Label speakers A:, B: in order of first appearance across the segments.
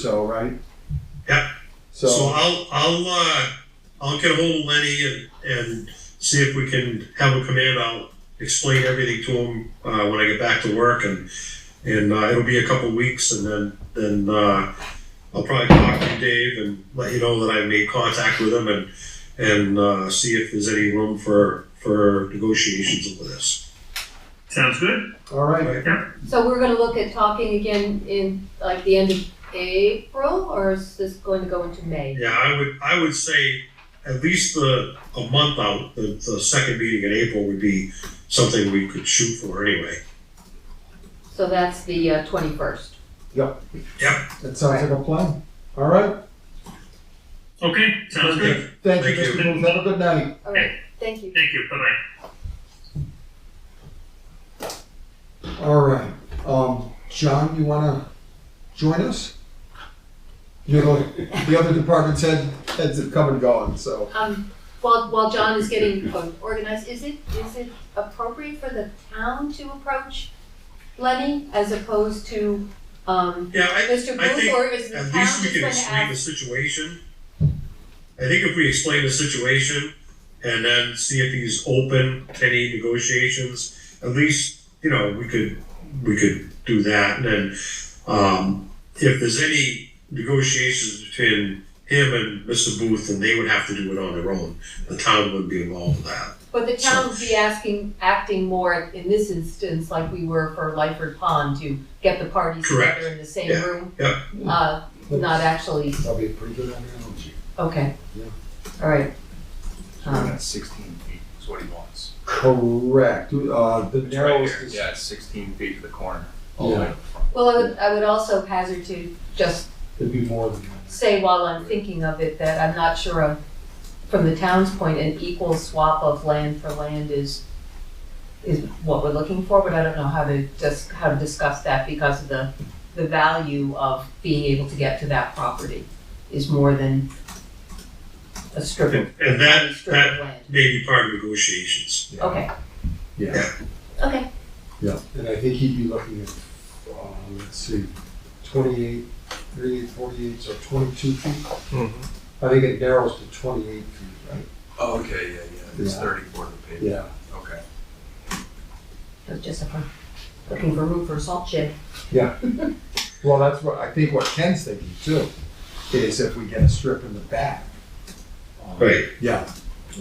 A: so, right?
B: Yeah. So
A: So,
B: I'll, I'll, uh, I'll get hold of Lenny and, and see if we can have him come in. I'll explain everything to him, uh, when I get back to work and, and, uh, it'll be a couple weeks and then, then, uh, I'll probably talk to Dave and let you know that I made contact with him and, and, uh, see if there's any room for, for negotiations over this.
C: Sounds good.
A: all right,
D: So we're gonna look at talking again in like the end of April, or is this going to go into May?
B: Yeah, I would, I would say at least the, a month out, the, the second meeting in April would be something we could shoot for anyway.
D: So that's the uh, twenty-first.
A: that sounds like a plan. All right,
C: Okay, sounds good.
A: thank you,
B: Thank
A: Mr.
B: you.
A: Booth, have a good night.
D: All right, thank you.
C: Thank you. Bye bye.
A: All right, um, John, you wanna join us? You know, the other department's head, heads have come and gone, so.
D: Um, while, while John is getting um, organized, is it, is it appropriate for the town to approach Lenny as opposed to, um,
B: Yeah, I,
D: Mr.
B: I
D: Booth,
B: think
D: or is the town
B: at
D: just
B: least we
D: going
B: can
D: to
B: explain the
D: ask?
B: situation. I think if we explain the situation and then see if he's open to any negotiations, at least, you know, we could, we could do that. And then, um, if there's any negotiations between him and Mr. Booth, then they would have to do it on their own. The town wouldn't be involved with that.
D: But the town would be asking, acting more in this instance like we were for Lyford Pond to get the parties
B: Correct.
D: together in the same
B: Yeah,
D: room.
B: yeah.
D: Uh, not actually
A: That'll be a pretty good analogy.
D: Okay.
A: Yeah.
D: All right.
E: So we're
D: Um,
E: at sixteen feet is what he wants.
A: Correct, uh, the
E: It's right
A: narrowest
E: here.
A: is.
E: Yeah, it's sixteen feet to the corner, all the way to the front.
D: Well, I would, I would also hazard to just
A: It'd be more than that.
D: say while I'm thinking of it that I'm not sure of, from the town's point, an equal swap of land for land is, is what we're looking for, but I don't know how to just, how to discuss that because of the, the value of being able to get to that property is more than a strip
B: And,
D: of,
B: and
D: a
B: that,
D: strip
B: that
D: of land.
B: may be part of negotiations.
D: Okay,
A: Yeah,
D: okay.
A: and I think he'd be looking at, uh, let's see, twenty-eight, thirty-eight, forty-eight, so twenty-two feet. I think it narrows to twenty-eight feet, right?
E: Oh, okay, yeah, yeah, it's
A: Yeah.
E: thirty-four to the pavement,
A: Yeah.
E: okay.
D: It was just for, looking for room for a salt shed.
A: Well, that's what, I think what Ken's thinking too, is if we get a strip in the back. um,
B: Right.
A: Yeah,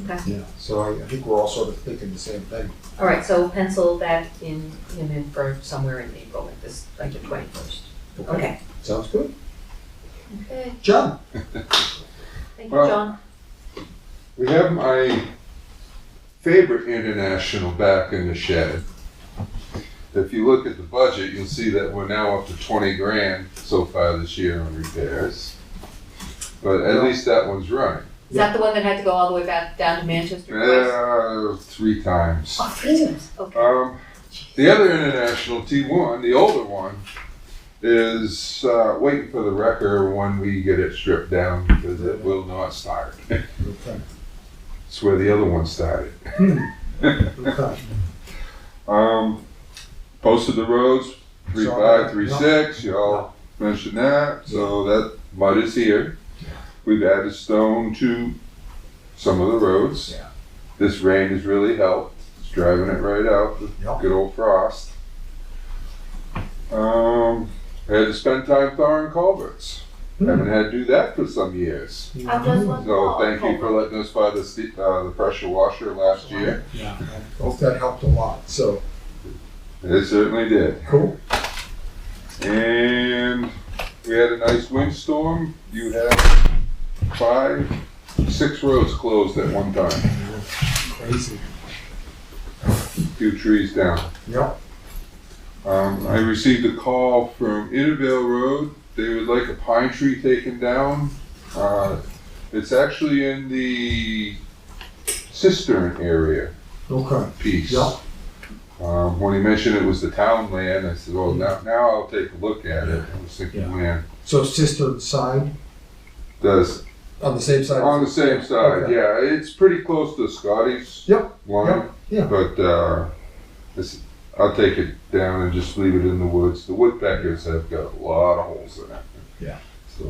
D: Okay.
A: yeah, so I, I think we're all sort of thinking the same thing.
D: All right, so pencil that in, him in for somewhere in April, like this, like the twenty-first. Okay.
A: Sounds good.
D: Okay,
A: John?
D: thank you,
F: Well-
D: John.
F: We have my favorite international back in the shed. If you look at the budget, you'll see that we're now up to twenty grand so far this year on repairs. But at least that one's running.
D: Is that the one that had to go all the way back down to Manchester twice?
F: Uh, three times.
D: Oh, three times, okay.
F: Um, the other international T1, the older one, is uh, waiting for the wrecker when we get it stripped down because it will not start.
A: Okay.
F: It's where the other one started.
A: Okay.
F: Um, posted the roads, three
A: Sorry.
F: five, three six, y'all mentioned that, so that mud is here. We've added stone to some of the roads.
A: Yeah.
F: This rain has really helped, it's driving it right out, the
A: Yep.
F: good old frost. Um, I had to spend time thawing culverts,
A: Hmm.
F: haven't had to do that for some years.
D: How does one
F: So
D: fall?
F: thank you for letting us buy the, ste- uh, the pressure washer last year,
A: Yeah, I hope that helped a lot, so,
F: it certainly did.
A: cool.
F: And we had a nice windstorm. You had five, six roads closed at one time,
A: Crazy.
F: a few trees down.
A: Yep,
F: Um, I received a call from Intervale Road. They would like a pine tree taken down. Uh, it's actually in the cistern area
A: okay,
F: piece.
A: yep.
F: Um, when he mentioned it was the town land, I said, well, now, now I'll take a look at it. I was thinking,
A: Yeah.
F: man,
A: So cistern side,
F: does
A: on the same side?
F: On the same side,
A: Okay.
F: yeah. It's pretty close to Scotty's
A: Yep,
F: line.
A: yeah.
F: But uh, it's, I'll take it down and just leave it in the woods. The woodpeckers have got a lot of holes in it.
A: Yeah.